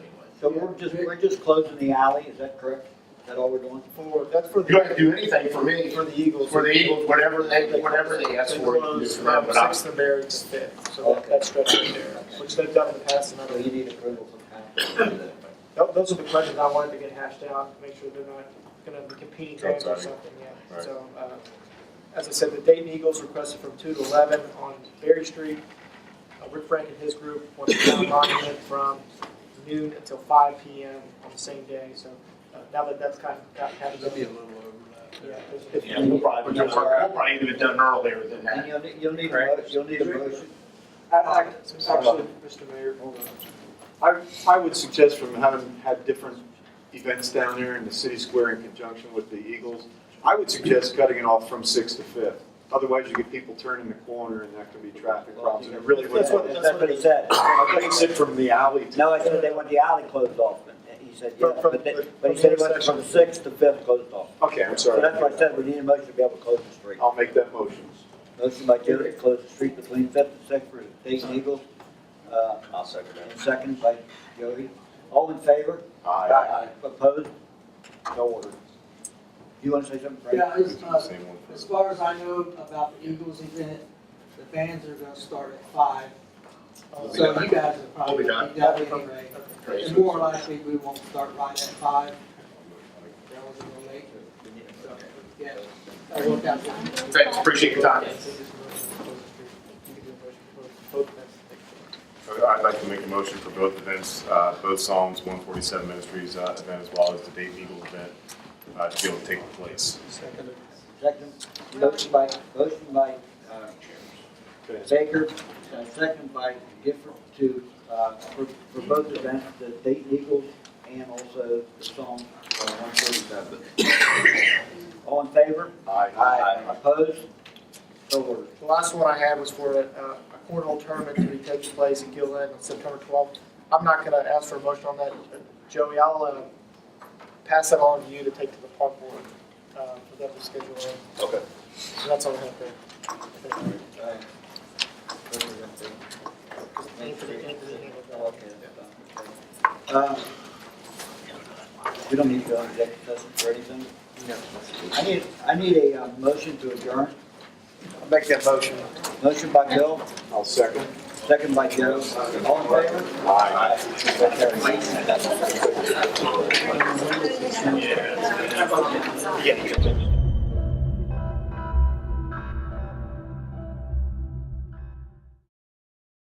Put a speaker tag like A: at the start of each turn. A: So we're just, we're just closing the alley, is that correct? Is that all we're doing?
B: For, that's for
C: You don't
B: the,
C: have to do anything for me,
B: for the Eagles.
C: for the Eagles, whatever they, whatever they ask
B: They
C: for. you can do
B: close
C: for them,
B: from
C: but I-
B: Sixth and Barry to Fifth, so that, that stretch right there, which they've done in the past. and
A: So
B: other-
A: you need approval from council. to do
B: tho- Those are the questions I wanted to get hashed out, make sure they're not gonna be competing games or
C: Outside.
B: something, yeah.
C: Right.
B: So, uh, as I said, the Dayton Eagles requested from two to eleven on Berry Street. Uh, Rick Frank and his group wants to down monument from noon until five P M on the same day, so, uh, now that that's kind of got hashed out.
D: That'd be a little overlap.
B: Yeah,
D: there.
B: if- if-
C: Yeah, we'll probably, we'll probably even have done earlier than
A: that. And
C: that.
A: you'll, need- you'll need, a mo- you'll need a motion.
B: I- I- Actually, Mr. Mayor, hold on.
E: I, I would suggest from having had different events down there in the city square in conjunction with the Eagles, I would suggest cutting it off from Sixth to Fifth. Otherwise, you get people turning the corner and that could be traffic problems, and it really would.
B: That's what-
E: I
A: That's what he said.
E: think it's it from the alley to.
A: No, I said they want the alley closed off, and he said, yeah,
B: From- from-
A: but they,
B: from-
A: but he said he wants it
B: from
A: from sixth to fifth closed off.
E: Okay, I'm
A: So
E: sorry.
A: that's why I said we need a motion to be able to close the street.
E: I'll make that motion.
A: Motion by Jerry to close the street between Fifth and Sixth for Dayton Eagles. Uh,
F: I'll second that.
A: and second by Jody. All in favor?
E: Aye.
A: Opposed? No order. You want to say something, Frank?
G: Yeah, as, uh, as far as I know about the Eagles event, the bands are gonna start at five.
C: We'll be
G: So
C: done.
G: you guys are probably
C: We'll
G: be done anyway. And more likely, we won't start right at five. That was a little late, so, yeah. I worked out the-
C: Thanks, appreciate your time.
H: I'd like to make a motion for both events, uh, both Psalms 147 Ministries uh, event as well as the Dayton Eagle event uh, to be able to take place.
A: Second, motion by, motion by, uh, Baker, uh, second by Gifford to, uh, for, for both events, the Dayton Eagles and also the Psalm one forty-seven. All in favor?
E: Aye.
A: Opposed? So ordered.
B: The last one I had was for a, a cornhole tournament to be taking place in Gilland on September twelfth. I'm not gonna ask for a motion on that, Joey, I'll, uh, pass that on to you to take to the park board, uh, for them to schedule it.
E: Okay.
B: So That's all I have there.
A: Uh, We don't need to go into executive session for anything? No. I need, I need a uh, motion to adjourn.
B: Make that motion.
A: Motion by Bill,
E: I'll second.
A: second by Joe. All in favor?
E: Aye.
H: Yeah.